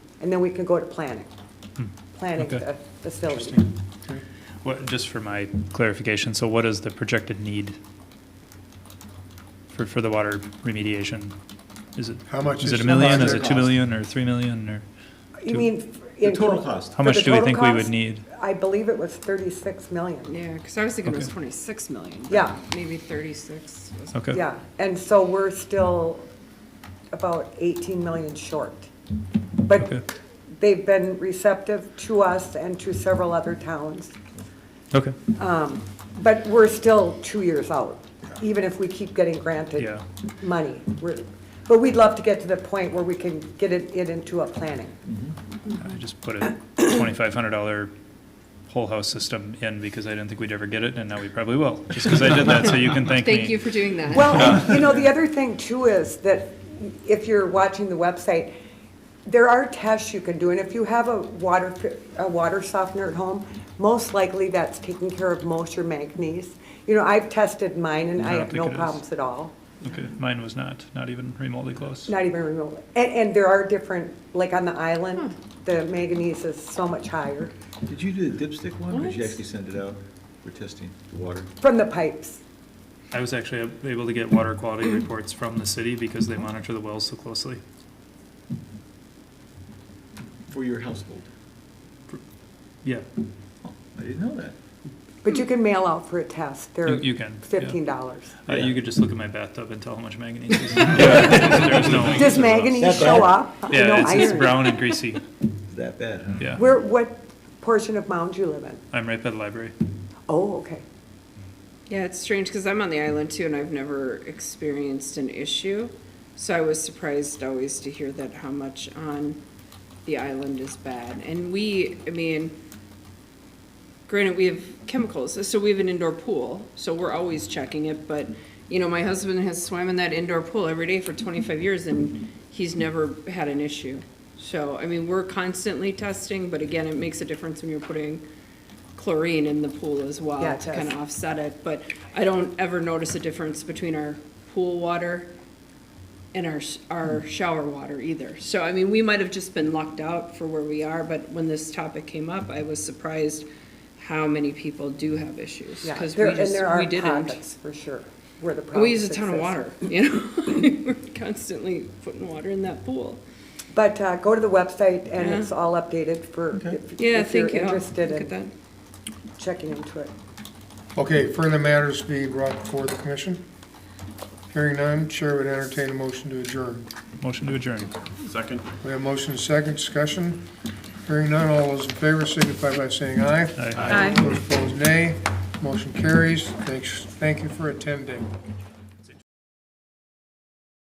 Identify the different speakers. Speaker 1: and then we can go to planning, planning
Speaker 2: Hmm, okay.
Speaker 1: the facility.
Speaker 2: What, just for my clarification, so what is the projected need for, for the water remediation? Is it,
Speaker 3: How much
Speaker 2: is
Speaker 3: is
Speaker 2: it a
Speaker 3: the
Speaker 2: million, is
Speaker 3: project
Speaker 2: it two
Speaker 3: cost?
Speaker 2: million, or three million, or
Speaker 1: You
Speaker 2: To-
Speaker 1: mean?
Speaker 4: The
Speaker 1: in-
Speaker 4: total cost.
Speaker 2: how
Speaker 1: For the
Speaker 2: much do we
Speaker 1: total
Speaker 2: think we would
Speaker 1: cost?
Speaker 2: need?
Speaker 1: I believe it was 36 million,
Speaker 5: Yeah, because I was thinking it was
Speaker 2: Okay.
Speaker 5: 26 million. but
Speaker 1: Yeah.
Speaker 5: Maybe 36. was-
Speaker 2: Okay.
Speaker 1: yeah. And so we're still about 18 million short.
Speaker 2: Okay.
Speaker 1: But they've been receptive to us and to several other towns.
Speaker 2: Okay,
Speaker 1: But we're still two years out, even if we keep getting granted
Speaker 2: Yeah.
Speaker 1: money. We're- But we'd love to get to the point where we can get it it into a planning.
Speaker 2: I just put a twenty-five hundred dollar whole house system in because I didn't think we'd ever get it, and now we probably will, just because I did that, so you can thank me.
Speaker 5: Thank you for doing that.
Speaker 1: Well, and, you know, the other thing too is that if you're watching the website, there are tests you can do, and if you have a water, fi- a water softener at home, most likely that's taking care of most your manganese. You know, I've tested mine and I
Speaker 2: I don't
Speaker 1: have no
Speaker 2: think it is.
Speaker 1: problems at all,
Speaker 2: Okay, mine was not, not even remotely close.
Speaker 1: not even remotely. And, and there are different, like on the island, the manganese is so much higher
Speaker 4: Did you do the dipstick one, or did you
Speaker 5: What?
Speaker 4: actually send it out for testing the water?
Speaker 1: from the pipes.
Speaker 2: I was actually able to get water quality reports from the city because they monitor the wells so closely.
Speaker 4: For your household?
Speaker 2: Yeah,
Speaker 4: Oh, I didn't know that.
Speaker 1: But you can mail out for a test,
Speaker 2: you,
Speaker 1: they're
Speaker 2: you can. yeah.
Speaker 1: fifteen dollars.
Speaker 2: Uh,
Speaker 4: Yeah.
Speaker 2: you could just look at my bathtub and tell how much manganese is in it. There's no.
Speaker 1: Does manganese
Speaker 4: That's
Speaker 1: show
Speaker 4: bad.
Speaker 1: up? No
Speaker 2: Yeah, it's, it's
Speaker 1: iron.
Speaker 2: brown and greasy,
Speaker 4: It's that bad, huh?
Speaker 5: Uh-huh.
Speaker 2: yeah.
Speaker 1: Where, what portion of Mound you live in?
Speaker 2: I'm right by the library.
Speaker 1: Oh, okay.
Speaker 5: Yeah, it's strange because I'm on the island too and I've never experienced an issue. So I was surprised always to hear that how much on the island is bad. And we, I mean, granted, we have chemicals, so we have an indoor pool, so we're always checking it, but, you know, my husband has swam in that indoor pool every day for twenty-five years and he's never had an issue. So, I mean, we're constantly testing, but again, it makes a difference when you're putting chlorine in the pool as well
Speaker 1: Yeah, it
Speaker 5: to
Speaker 1: does.
Speaker 5: kind of offset it, but I don't ever notice a difference between our pool water and our, s- our shower water either. So, I mean, we might have just been lucked out for where we are, but when this topic came up, I was surprised how many people do have issues.
Speaker 1: Yeah,
Speaker 5: Because
Speaker 1: there-
Speaker 5: we
Speaker 1: and
Speaker 5: just,
Speaker 1: there are
Speaker 5: we didn't.
Speaker 1: products for sure, where the
Speaker 5: We use a
Speaker 1: products
Speaker 5: ton of
Speaker 1: exist.
Speaker 5: water, you know? We're constantly putting water in that pool.
Speaker 1: But uh, go to the website and
Speaker 5: Yeah.
Speaker 1: it's all updated for, if
Speaker 5: Yeah,
Speaker 1: if you're
Speaker 5: thank you. I'll Look
Speaker 1: interested
Speaker 5: at
Speaker 1: in
Speaker 5: that.
Speaker 1: checking into it.
Speaker 3: Okay, further matters be brought before the commission? Hearing none, chair would entertain a motion to adjourn.
Speaker 2: Motion to adjourn.
Speaker 3: We have motion and second discussion. Hearing none, all those in favor signify by saying aye.
Speaker 2: Aye.
Speaker 3: Those opposed, nay. Motion carries. Thanks, thank you for attending.